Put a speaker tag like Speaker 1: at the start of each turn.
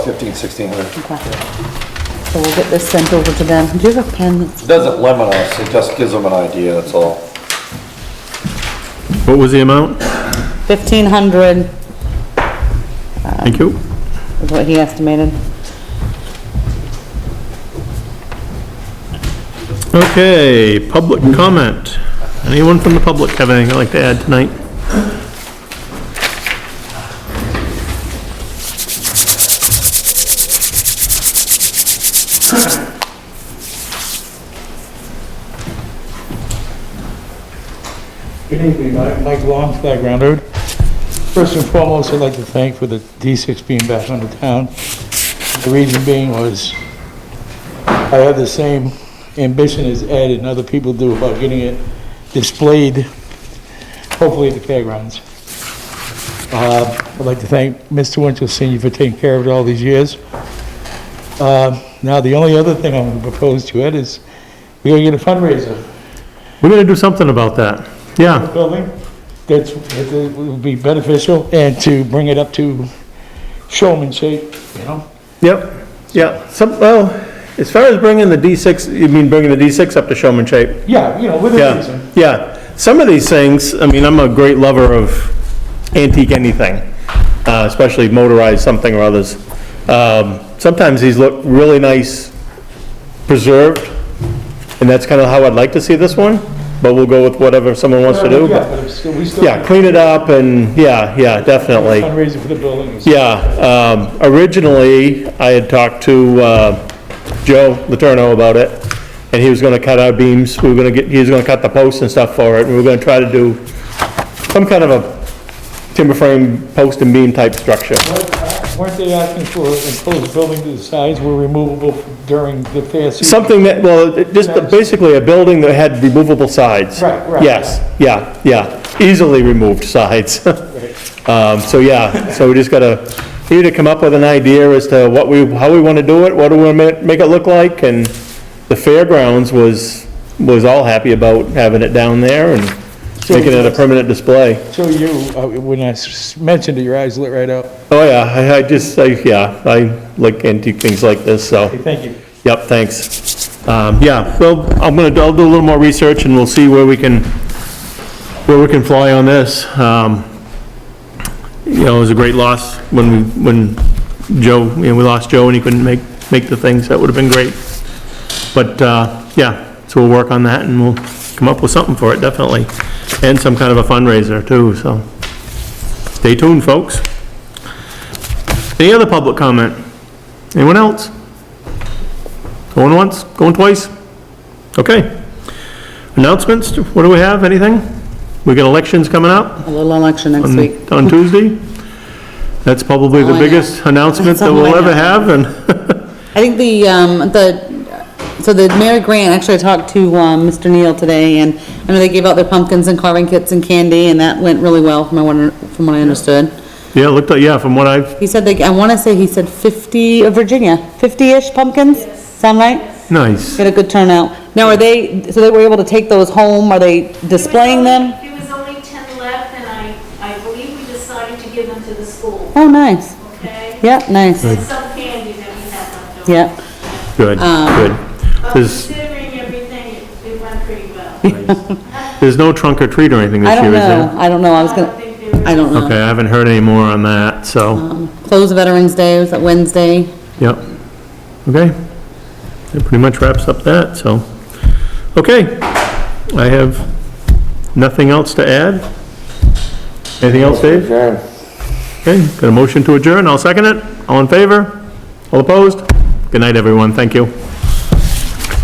Speaker 1: fifteen, sixteen hundred.
Speaker 2: Okay. So we'll get this sent over to them. Do you have a pen?
Speaker 1: It doesn't limit us, it just gives them an idea, that's all.
Speaker 3: What was the amount?
Speaker 2: Fifteen hundred
Speaker 3: Thank you.
Speaker 2: is what he estimated.
Speaker 3: Okay, public comment. Anyone from the public have anything they'd like to add tonight?
Speaker 4: Good evening, Mike Mike Long, Flag Ground Road. First and foremost, I'd like to thank for the D6 being back on the town. The reason being was, I have the same ambition as Ed and other people do about getting it displayed, hopefully at the fairgrounds. Uh, I'd like to thank Mr. Winchell Senior for taking care of it all these years. Uh, Now, the only other thing I'm going to propose to Ed is, we gotta get a fundraiser
Speaker 3: We're gonna do something about that. Yeah,
Speaker 4: building that's, that would be beneficial and to bring it up to showman shape, you know?
Speaker 3: yep, yeah. Some, well, as far as bringing the D6, you mean bringing the D6 up to showman shape?
Speaker 4: Yeah, you know, with a
Speaker 3: Yeah,
Speaker 4: reason.
Speaker 3: yeah. Some of these things, I mean, I'm a great lover of antique anything, uh, especially motorized something or others. Um, Sometimes these look really nice preserved, and that's kind of how I'd like to see this one, but we'll go with whatever someone wants to do.
Speaker 4: Uh, Yeah,
Speaker 3: but-
Speaker 4: but it's still- we still.
Speaker 3: Yeah, clean it up and, yeah, yeah, definitely.
Speaker 4: Fundraiser for the building. is-
Speaker 3: Yeah, um, originally, I had talked to, uh, Joe Letourneau about it, and he was gonna cut our beams, we were gonna get, he was gonna cut the posts and stuff for it, and we were gonna try to do some kind of a timber frame post and beam type structure.
Speaker 4: Weren't they asking for enclosed building to the sides were removable during the fair season?
Speaker 3: Something that, well, it- just basically a building that had removable sides.
Speaker 4: Right, right,
Speaker 3: Yes, yeah, yeah, easily removed sides. Um, so yeah, so we just gotta, we need to come up with an idea as to what we, how we wanna do it, what do we wanna ma- make it look like, and the fairgrounds was, was all happy about having it down there and making it a permanent display.
Speaker 4: So you, uh, when I s- mentioned it, your eyes lit right up.
Speaker 3: Oh yeah, I, I just, I, yeah, I like antique things like this, so.
Speaker 4: Hey, thank you.
Speaker 3: Yep, thanks. Um, yeah, well, I'm gonna, I'll do a little more research and we'll see where we can, where we can fly on this. Um, you know, it was a great loss when we, when Joe, you know, we lost Joe and he couldn't make, make the things. That would have been great. But, uh, yeah, so we'll work on that and we'll come up with something for it, definitely. And some kind of a fundraiser too, so. Stay tuned, folks. Any other public comment? Anyone else? Going once, going twice? Okay. Announcements, what do we have, anything? We got elections coming up
Speaker 2: A little election next week.
Speaker 3: on on Tuesday. That's probably
Speaker 2: All
Speaker 3: the
Speaker 2: I know.
Speaker 3: biggest announcement that we'll
Speaker 2: That's all I
Speaker 3: ever
Speaker 2: know.
Speaker 3: have, and,
Speaker 2: I think the, um, the, so the Mary Grant, actually I talked to, um, Mr. Neal today and I know they gave out their pumpkins and carving kits and candy and that went really well from what, I- from what I understood.
Speaker 3: yeah, it looked like, yeah, from what I've,
Speaker 2: He said they, I wanna say he said fifty, of Virginia, fifty-ish pumpkins? Sound right?
Speaker 3: nice.
Speaker 2: Get a good turnout. Now, are they, so they were able to take those home? Are they displaying them?
Speaker 5: There was only 10 left, and I, I believe we decided to give them to the school,
Speaker 2: Oh, nice.
Speaker 5: okay?
Speaker 2: Yeah, nice.
Speaker 5: And some candy that we had left over.
Speaker 2: Yeah.
Speaker 3: Good,
Speaker 2: Um,
Speaker 3: good.
Speaker 5: But
Speaker 3: There's,
Speaker 5: considering everything, it- it went pretty well.
Speaker 3: there's no trunk or treat or anything
Speaker 2: I
Speaker 3: this
Speaker 2: don't
Speaker 3: year, is
Speaker 2: know.
Speaker 3: there?
Speaker 2: I don't know. I was
Speaker 5: I don't
Speaker 2: gonna,
Speaker 5: think there was
Speaker 2: I don't know.
Speaker 3: Okay, I haven't heard any more on that, so,
Speaker 2: Um, Close Veterans Day, was that Wednesday?
Speaker 3: yep. Okay. That pretty much wraps up that, so. Okay. I have nothing else to add. Anything else, Dave?
Speaker 1: Adjourn.
Speaker 3: Okay, got a motion to adjourn, I'll second it. All in favor? All opposed? Good night, everyone, thank you.